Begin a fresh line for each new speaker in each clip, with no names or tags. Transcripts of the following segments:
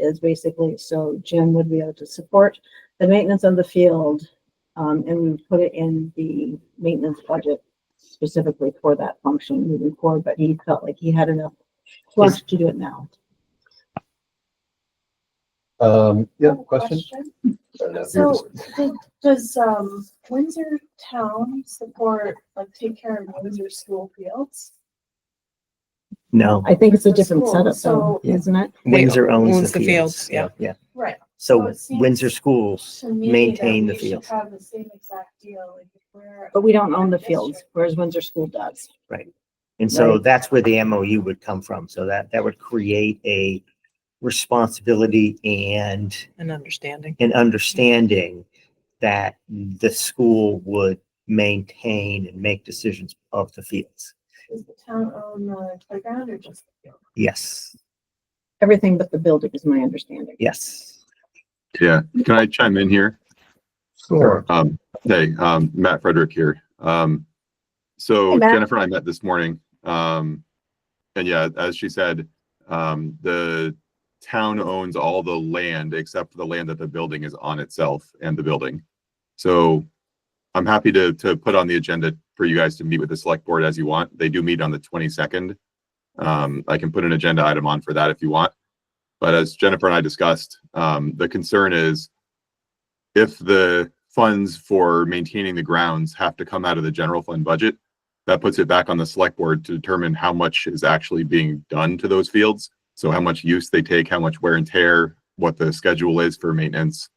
is basically, so Jim would be able to support the maintenance of the field. Um, and we would put it in the maintenance budget specifically for that function moving forward, but he felt like he had enough work to do it now.
Um, yeah, question? Uh,
So, did- does, um, Windsor Town support, like, take care of Windsor school fields?
No,
I think it's a different setup though,
So-
isn't it?
Windsor owns
owns
the
the
fields.
fields, yeah.
Yeah,
Right. So
so
Oh, it seems
Windsor Schools,
To me, that
Maintain the
we should
fields.
have the same exact deal, like, if we're.
But we don't own the fields, whereas Windsor School does.
and so
Right.
that's where the MOU would come from. So that, that would create a responsibility and
an understanding.
an understanding that the school would maintain and make decisions of the fields.
Does the town own the playground or just the field?
Yes,
Everything but the building is my understanding.
yes.
Yeah, can I chime in here? Um, hey, um, Matt Frederick here.
Hey,
Um, so
Matt.
Jennifer and I met this morning. Um, and yeah, as she said, um, the town owns all the land except for the land that the building is on itself and the building. So I'm happy to, to put on the agenda for you guys to meet with the select board as you want. They do meet on the 22nd. Um, I can put an agenda item on for that if you want. But as Jennifer and I discussed, um, the concern is if the funds for maintaining the grounds have to come out of the general fund budget, that puts it back on the select board to determine how much is actually being done to those fields. So how much use they take, how much wear and tear, what the schedule is for maintenance.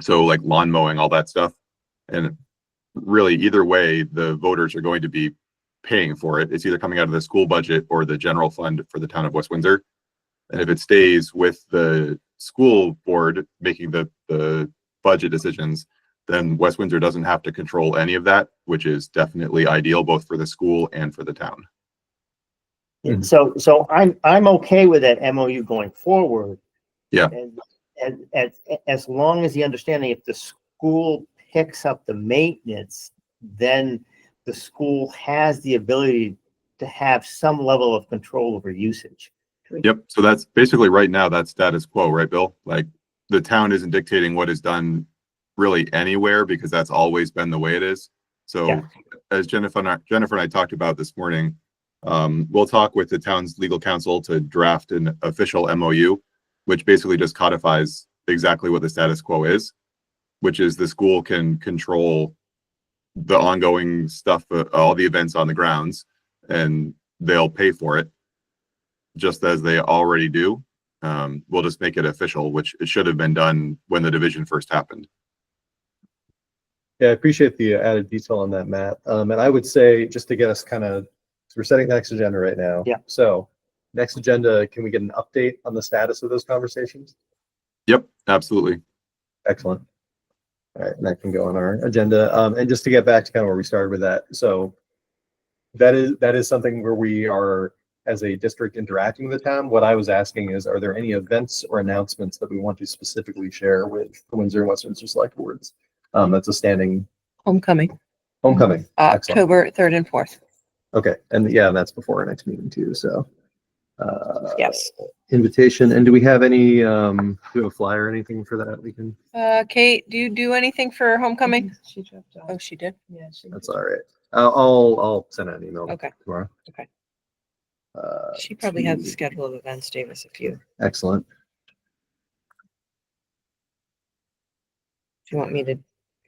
So like lawn mowing, all that stuff. And really either way, the voters are going to be paying for it. It's either coming out of the school budget or the general fund for the town of West Windsor. And if it stays with the school board making the, the budget decisions, then West Windsor doesn't have to control any of that, which is definitely ideal both for the school and for the town.
And so, so I'm, I'm okay with that MOU going forward.
Yeah.
And, and, as, as long as the understanding, if the school picks up the maintenance, then the school has the ability to have some level of control over usage.
Yep. So that's basically right now, that's status quo, right, Bill? Like the town isn't dictating what is done really anywhere because that's always been the way it is. So
Yeah.
as Jennifer and I, Jennifer and I talked about this morning, um, we'll talk with the town's legal counsel to draft an official MOU, which basically just codifies exactly what the status quo is, which is the school can control the ongoing stuff, uh, all the events on the grounds, and they'll pay for it just as they already do. Um, we'll just make it official, which it should have been done when the division first happened.
Yeah, I appreciate the added detail on that, Matt. Um, and I would say, just to get us kind of, we're setting the next agenda right now.
Yeah.
So, next agenda, can we get an update on the status of those conversations?
Yep, absolutely.
Excellent. All right, and that can go on our agenda. Um, and just to get back to kind of where we started with that, so that is, that is something where we are, as a district, interacting with the town. What I was asking is, are there any events or announcements that we want to specifically share with the Windsor and Westminster Select Boards? Um, that's a standing
Homecoming,
homecoming. Excellent.
October third and fourth.
Okay, and yeah, that's before our next meeting too, so. Uh,
Yes.
invitation, and do we have any, um, do we have a flyer or anything for that we can?
Uh, Kate, do you do anything for homecoming?
She dropped
Oh, she did.
Yeah, she.
That's all right. I'll, I'll, I'll send out an email
Okay.
tomorrow.
Okay.
Uh,
She probably has the
see.
schedule of events, Davis, if you,
excellent.
if you want me to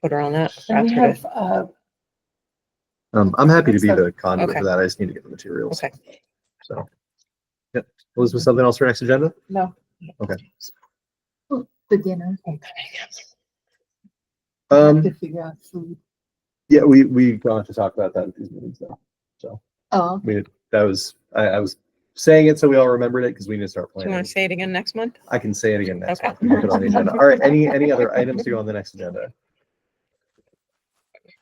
put her on that.
And we
after the-
have, uh,
Um, I'm happy to be
Excellent.
the conduit
Okay.
for that. I just need to get the materials.
Okay.
So. Yep. Was there something else for next agenda?
No.
Okay.
the dinner
Um,
to figure out food.
yeah, we, we got to talk about that at these meetings though.
Oh,
We, that was, I, I was saying it so we all remembered it because we need to start
Do you
planning.
want to say it again next month?
I can say it again next
Okay.
month. We can put it on the agenda. All right, any, any other items to go on the next agenda?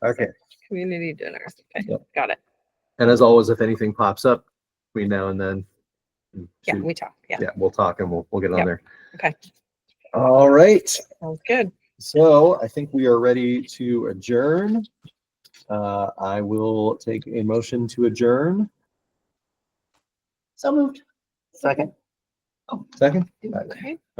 Okay,
Community dinner. Okay,
Yep.
Got it.
and as always, if anything pops up between now and then.
Yeah, we talk. Yeah,
Yeah, we'll talk and we'll, we'll get on
Yep.
there.
Okay.
All right,
sounds good.
so I think we are ready to adjourn. Uh, I will take a motion to adjourn.
so moved.
Second.
Second?
Okay.